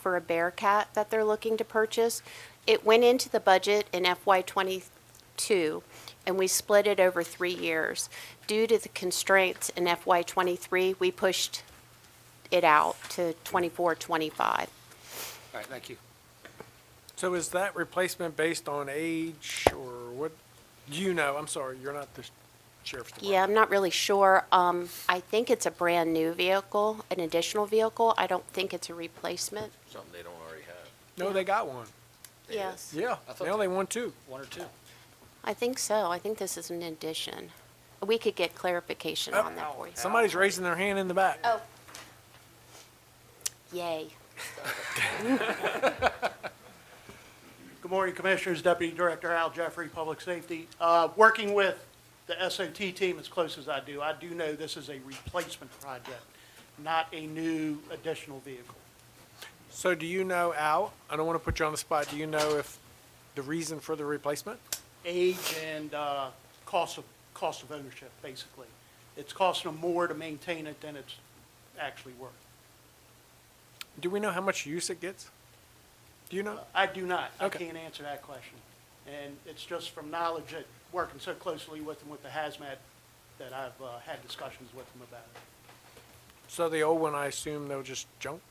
for a Bearcat that they're looking to purchase. It went into the budget in FY '22, and we split it over three years. Due to the constraints in FY '23, we pushed it out to '24, '25. All right, thank you. So is that replacement based on age or what? You know, I'm sorry, you're not the sheriff's department. Yeah, I'm not really sure. Um, I think it's a brand-new vehicle, an additional vehicle. I don't think it's a replacement. Something they don't already have. No, they got one. It Yes, Yeah, I thought now they- they want two. One or two. I think so. I think this is an addition. We could get clarification on that for you. Somebody's raising their hand in the back. Oh. Yay. Good morning, Commissioners. Deputy Director Al Jeffrey, Public Safety. Uh, Working with the SOT team as close as I do, I do know this is a replacement project, not a new additional vehicle. So do you know, Al, I don't want to put you on the spot, do you know if the reason for the replacement? Age and uh, cost of, cost of ownership, basically. It's costing them more to maintain it than it's actually worth. Do we know how much use it gets? Do you know? I do not. I Okay. can't answer that question. And it's just from knowledge that, working so closely with them with the hazmat, that I've uh, had discussions with them about it. So the old one, I assume they'll just junk?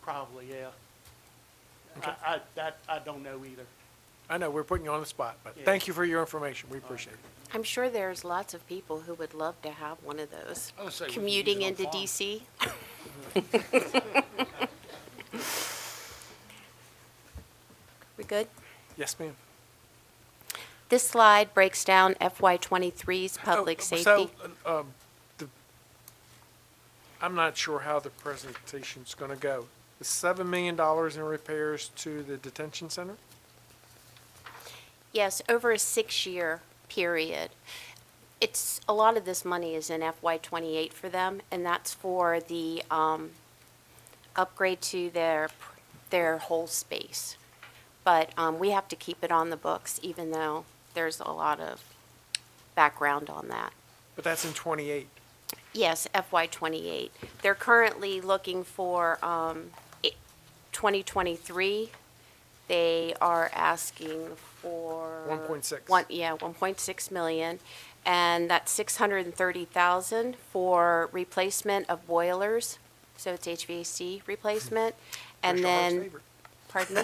Probably, yeah. I, I, that, I don't know either. I know, we're putting you on the spot, but Yeah. thank you for your information. We appreciate it. I'm sure there's lots of people who would love to have one of those. I would say we could use Commuting it on into farm. DC. We good? Yes, ma'am. This slide breaks down FY '23's public Oh, safety. So, uh, um, the, I'm not sure how the presentation's gonna go. The seven million dollars in repairs to the detention center? Yes, over a six-year period. It's, a lot of this money is in FY '28 for them, and that's for the um, upgrade to their, their whole space. But um, we have to keep it on the books, even though there's a lot of background on that. But that's in twenty-eight. Yes, FY '28. They're currently looking for um, i- 2023. They are asking for. 1.6. One, yeah, 1.6 million. And that's 630,000 for replacement of boilers. So it's HVAC replacement. And then, Commissioner Hart's favorite- pardon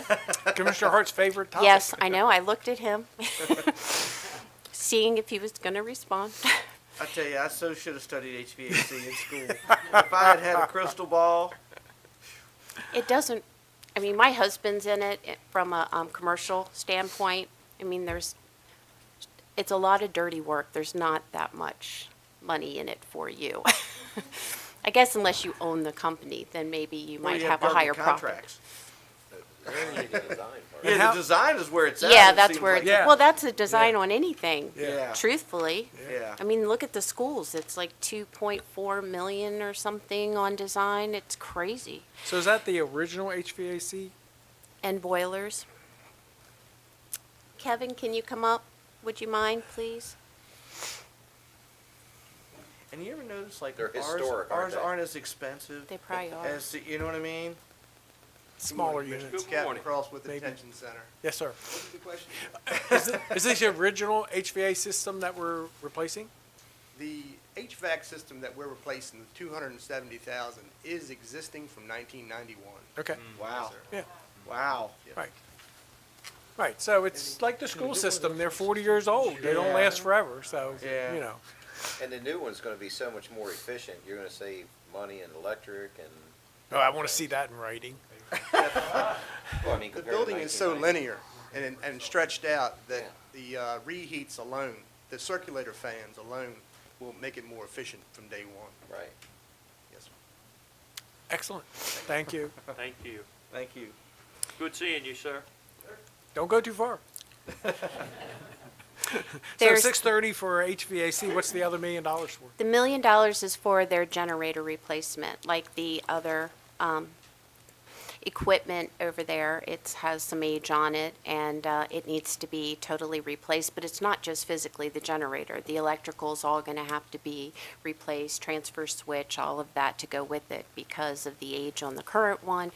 me? Commissioner Hart's favorite topic. Yes, I know, I looked at him, seeing if he was going to respond. I tell you, I so should have studied HVAC in school. if I had had a crystal ball, It doesn't, I mean, my husband's in it i- from a, um, commercial standpoint. I mean, there's, it's a lot of dirty work. There's not that much money in it for you. I guess unless you own the company, then maybe you well, might you have a government higher profit. contracts. And Yeah, how- the design is where it's at. Yeah, it that's seems where, like. it's- well, that's a design on anything, Yeah. truthfully. Yeah. I mean, look at the schools. It's like two point four million or something on design. It's crazy. So is that the original HVAC? and boilers. Kevin, can you come up? Would you mind, please? And you ever notice like They're ours, historic, aren't ours they? aren't as expensive They probably are. as the, you know what I mean? Smaller units? Captain Cross with the Maybe. detention center. Yes, sir. What's the question? Is this the original HVAC system that we're replacing? The HVAC system that we're replacing, the two hundred and seventy thousand, is existing from nineteen ninety-one. Okay, Wow. yeah, Wow. right. Right, so it's like the school system. They're forty years old. They don't last forever, so, you Yeah. know. And the new one's gonna be so much more efficient. You're gonna save money and electric and, Oh, I wanna see that in writing. well, I mean, The compared to building is so 1990. linear and, and stretched out that the uh, reheats alone, the circulator fans alone, will make it more efficient from day one. Right. Yes, sir. Excellent. Thank you. Thank you. Thank you. Good seeing you, sir. Don't go too far. So There's- six thirty for HVAC, what's the other million dollars for? The million dollars is for their generator replacement, like the other, um, equipment over there. It has some age on it, and uh, it needs to be totally replaced. But it's not just physically the generator. The electrical's all going to have to be replaced, transfer switch, all of that to go with it because of the age on the current one,